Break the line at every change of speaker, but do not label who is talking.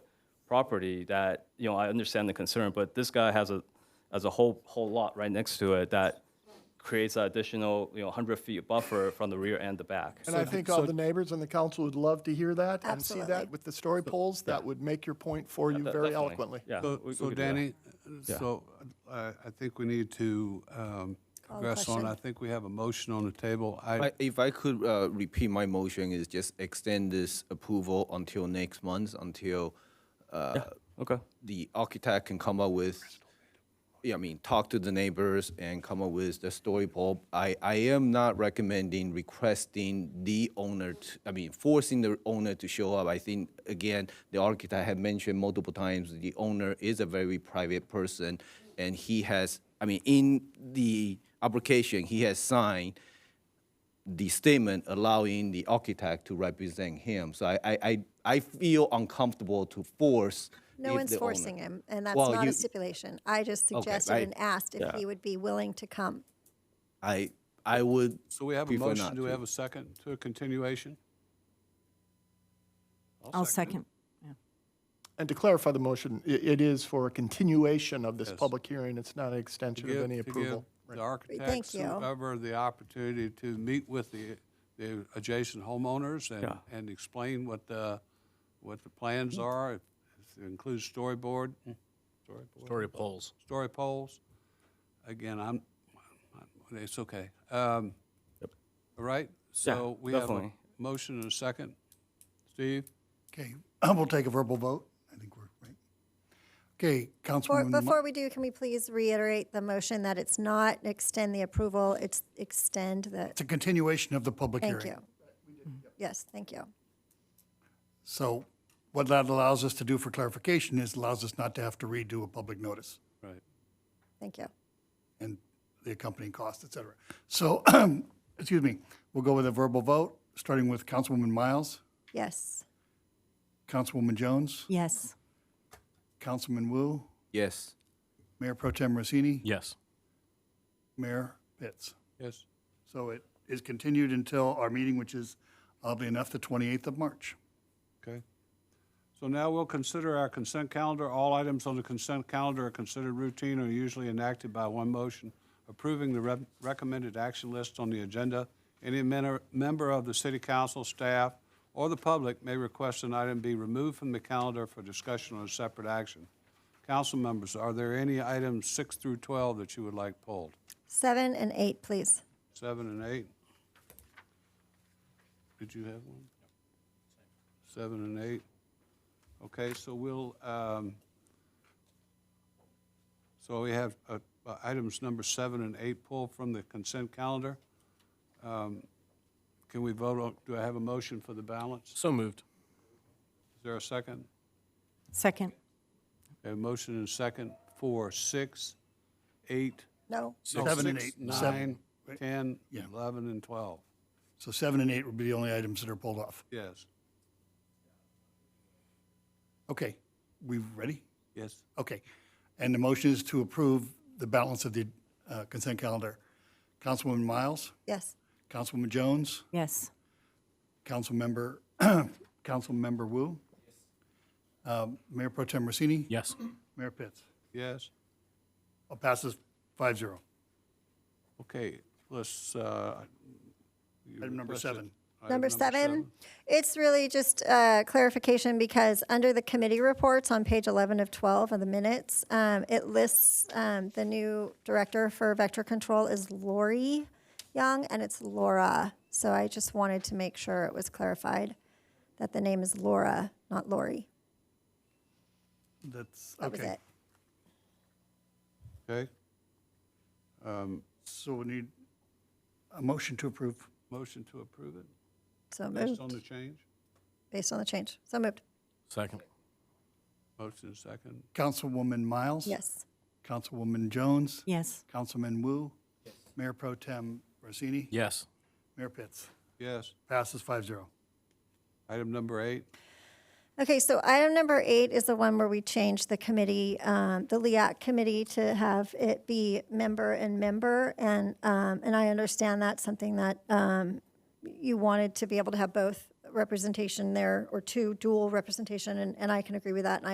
property that, you know, I understand the concern, but this guy has a, has a whole, whole lot right next to it that creates an additional, you know, 100 feet buffer from the rear and the back.
And I think all the neighbors and the council would love to hear that and see that
Absolutely.
with the story polls. That would make your point for you
De-
very
definitely.
eloquently.
Yeah.
So-
we- we
So
could do that.
Danny, so uh, I think we need to um, progress on.
question.
I think we have a motion on the table. I,
I- If I could uh, repeat my motion is just extend this approval until next month, until uh,
Okay,
the architect can come up with, yeah, I mean, talk to the neighbors and come up with the story pole. I, I am not recommending requesting the owner, to- I mean, forcing the owner to show up. I think, again, the architect had mentioned multiple times, the owner is a very private person, and he has, I mean, in the application, he has signed the statement allowing the architect to represent him. So I, I, I, I feel uncomfortable to force.
No
if
one's
the owner-
forcing him, and that's
Well,
not a
you-
stipulation. I just suggested
I-
and asked if he would be willing to come.
I, I would.
so we have a
prefer
motion.
not
Do we
to.
have a second to a continuation?
I'll second.
And to clarify the motion, i- it is for a continuation of this public hearing. It's not an extension of
give-
any
to give
approval.
The architects,
you.
whoever, the opportunity to meet with the, the adjacent homeowners and, and explain what the, what the plans are. If it includes storyboard,
Story polls.
story poles. Again, I'm, I'm- it's okay. Um, All right, so we have a
definitely.
motion and a second. Steve?
Okay, we'll take a verbal vote. I think we're right. Okay,
Before,
Councilwoman, Mo-
before we do, can we please reiterate the motion that it's not extend the approval, it's extend the,
it's a continuation of the public hearing.
thank you. Yes, thank you.
So what that allows us to do for clarification is allows us not to have to redo a public notice
Right.
Thank you.
and the accompanying costs, et cetera. So, excuse me, we'll go with a verbal vote, starting with Councilwoman Miles,
Yes.
Councilwoman Jones,
Yes.
Councilman Wu,
Yes.
Mayor Pro Tem Rosini,
Yes.
Mayor Pitts.
Yes.
So it is continued until our meeting, which is, oddly enough, the 28th of March.
Okay. So now we'll consider our consent calendar. All items on the consent calendar are considered routine or usually enacted by one motion, approving the re- recommended action list on the agenda. Any men- member of the city council, staff, or the public may request an item be removed from the calendar for discussion or separate action. Council members, are there any items six through 12 that you would like pulled?
Seven and eight, please.
Seven and eight? Did you have one? Seven and eight? Okay, so we'll, um, so we have uh, uh, items number seven and eight pulled from the consent calendar. Um, Can we vote on, do I have a motion for the balance?
So moved.
Is there a second?
Second.
A motion and second for six, eight,
No?
no,
Seven and
six,
eight, seven,
nine, 10,
Yeah.
11, and 12.
So seven and eight would be the only items that are pulled off.
Yes,
Okay, we ready?
yes.
Okay. And the motion is to approve the balance of the uh, consent calendar. Councilwoman Miles,
Yes.
Councilwoman Jones,
Yes.
Councilmember, Councilmember Wu, um, Mayor Pro Tem Rosini,
Yes.
Mayor Pitts.
Yes.
I'll pass this five zero.
Okay, let's, uh. you
Item number
requested
seven.
item
Number seven, it's really just uh, clarification because under the committee reports on page 11 of 12 of the minutes, um, it lists um, the new director for vector control is Lori Young and it's Laura. So I just wanted to make sure it was clarified that the name is Laura, not Lori.
That's,
That was
okay.
it.
Okay,
So we need a motion to approve.
motion to approve it
So
based on the
moved,
change?
based on the change. So moved.
Second.
Motion second,
Councilwoman Miles.
Yes.
Councilwoman Jones.
Yes.
Councilman Wu. Mayor Pro Tem Rosini.
Yes.
Mayor Pitts.
yes.
Passes five zero.
Item number eight,
Okay, so item number eight is the one where we changed the committee, um, the LIAC committee to have it be member and member. And, um, and I understand that's something that, um, you wanted to be able to have both representation there or two dual representation. And, and I can agree with that. And I